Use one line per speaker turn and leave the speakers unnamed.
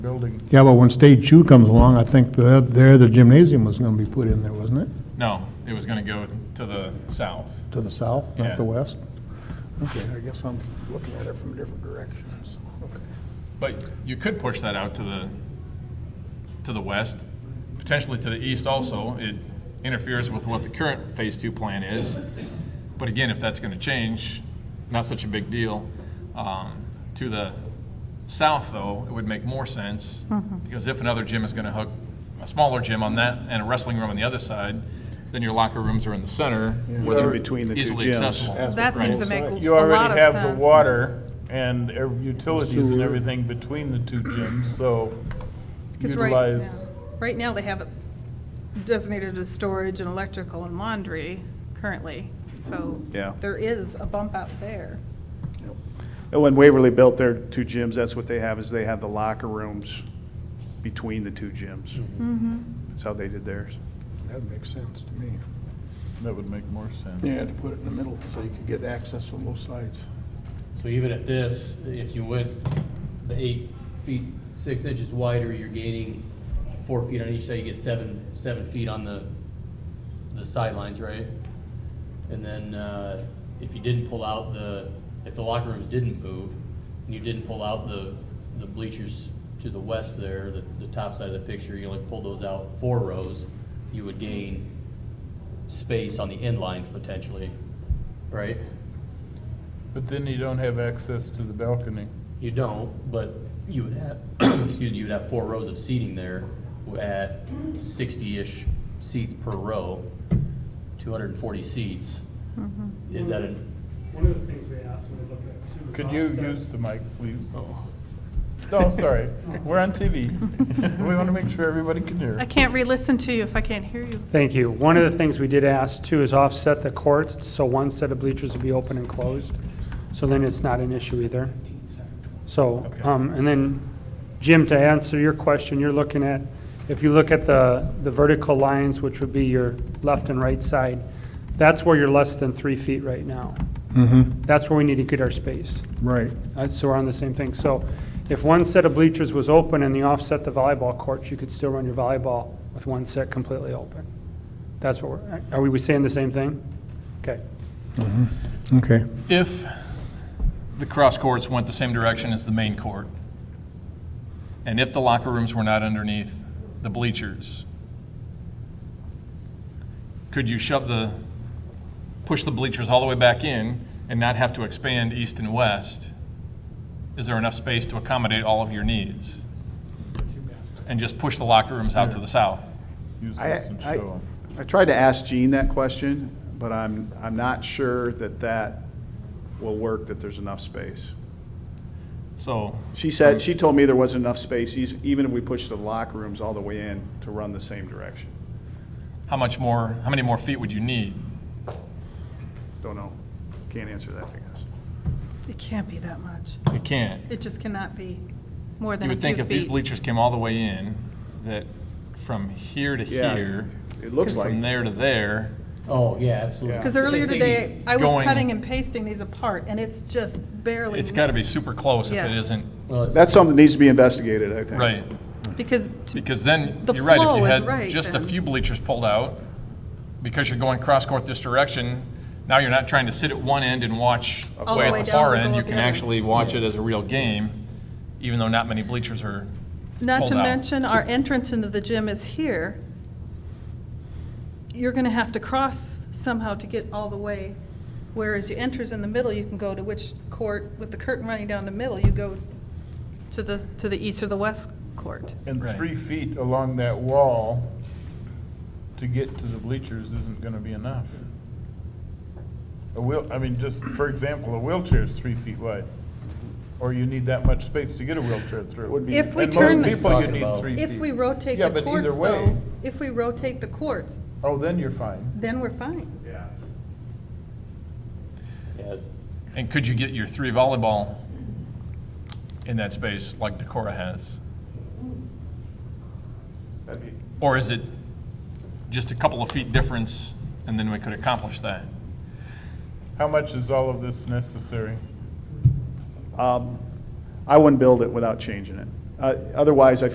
building.
Yeah, but when Stage Two comes along, I think the, there, the gymnasium was gonna be put in there, wasn't it?
No, it was gonna go to the south.
To the south,
Yeah.
not the west? Okay.
I guess I'm looking at it from different directions, okay.
But you could push that out to the, to the west, potentially to the east also. It interferes with what the current Phase Two plan is. But again, if that's gonna change, not such a big deal. Um, To the south, though, it would make more sense, because if another gym is gonna hook a smaller gym on that and a wrestling room on the other side, then your locker rooms are in the center, where
Or
they're
between the two
easily
gyms.
accessible.
As
That seems to make a lot of sense.
You already have the water and ev- utilities and everything between the two gyms, so
'Cause right now-
utilize,
Right now, they have it designated as storage and electrical and laundry currently, so.
Yeah.
There is a bump out there.
when Waverly built their two gyms, that's what they have, is they have the locker rooms between the two gyms.
Mm-hmm.
That's how they did theirs.
That makes sense to me.
That would make more sense.
Yeah, to put it in the middle, so you could get access from both sides.
So even at this, if you went the eight feet, six inches wider, you're gaining four feet on each side, you get seven, seven feet on the, the sidelines, right? And then, uh, if you didn't pull out the, if the locker rooms didn't move, and you didn't pull out the, the bleachers to the west there, the, the top side of the picture, you only pull those out four rows, you would gain space on the end lines potentially, right?
But then you don't have access to the balcony.
You don't, but you would have, excuse me, you would have four rows of seating there at sixty-ish seats per row, two hundred and forty seats.
Mm-hmm.
Is that a,
One of the things we asked when we looked at too was
Could you
offset.
use the mic, please? No, sorry, we're on TV. We want to make sure everybody can hear.
I can't re-listen to you if I can't hear you.
Thank you. One of the things we did ask too is offset the court, so one set of bleachers would be open and closed. So then it's not an issue either. So, um, and then Jim, to answer your question, you're looking at, if you look at the, the vertical lines, which would be your left and right side, that's where you're less than three feet right now.
Mm-hmm,
That's where we need to get our space.
right.
Uh, So we're on the same thing. So if one set of bleachers was open and you offset the volleyball courts, you could still run your volleyball with one set completely open. That's what we're, are we saying the same thing? Okay.
Okay,
If the cross courts went the same direction as the main court, and if the locker rooms were not underneath the bleachers, could you shove the, push the bleachers all the way back in and not have to expand east and west? Is there enough space to accommodate all of your needs? And just push the locker rooms out to the south?
Use
I,
this and
I-
show 'em.
I tried to ask Gene that question, but I'm, I'm not sure that that will work, that there's enough space.
So,
She said, she told me there wasn't enough space, eas- even if we pushed the locker rooms all the way in to run the same direction.
how much more, how many more feet would you need?
Don't know. Can't answer that, I guess.
It can't be that much.
You can't.
It just cannot be more
You
than a
would
few feet.
think if these bleachers came all the way in, that from here to
Yeah.
here,
It looks like,
from there to there,
oh, yeah, absolutely.
Because earlier
It's
today, I was
going-
cutting and pasting these apart, and it's just barely.
it's gotta be super close if it
Yes.
isn't,
Well, it's-
that's something that needs to be investigated, I think.
right?
Because, to-
Because then,
The
you're right, if
flow
you
is
had
right
just a
then.
few bleachers pulled out, because you're going cross-court this direction, now you're not trying to sit at one end and watch
All the
way
way
at the
down
far
to go
end. You
up the
can
other.
actually watch it as a real game, even though not many bleachers are
not to
pulled out.
mention, our entrance into the gym is here. You're going to have to cross somehow to get all the way, whereas you enters in the middle, you can go to which court, with the curtain running down the middle, you go to the, to the east or the west court.
And
Right.
three feet along that wall to get to the bleachers isn't going to be enough. A wheel, I mean, just for example, a wheelchair is three feet wide, or you need that much space to get a wheelchair through.
If we
And
turn,
most
the-
people, you
Talking
need
about-
three feet.
if we rotate
Yeah,
the
but either
courts
way-
though, if we rotate the courts,
Oh, then you're fine.
then we're fine.
yeah.
And could you get your three volleyball in that space like Decorah has? Or is it just a couple of feet difference and then we could accomplish that?
How much is all of this necessary?
Um, I wouldn't build it without changing it. Uh, Otherwise, I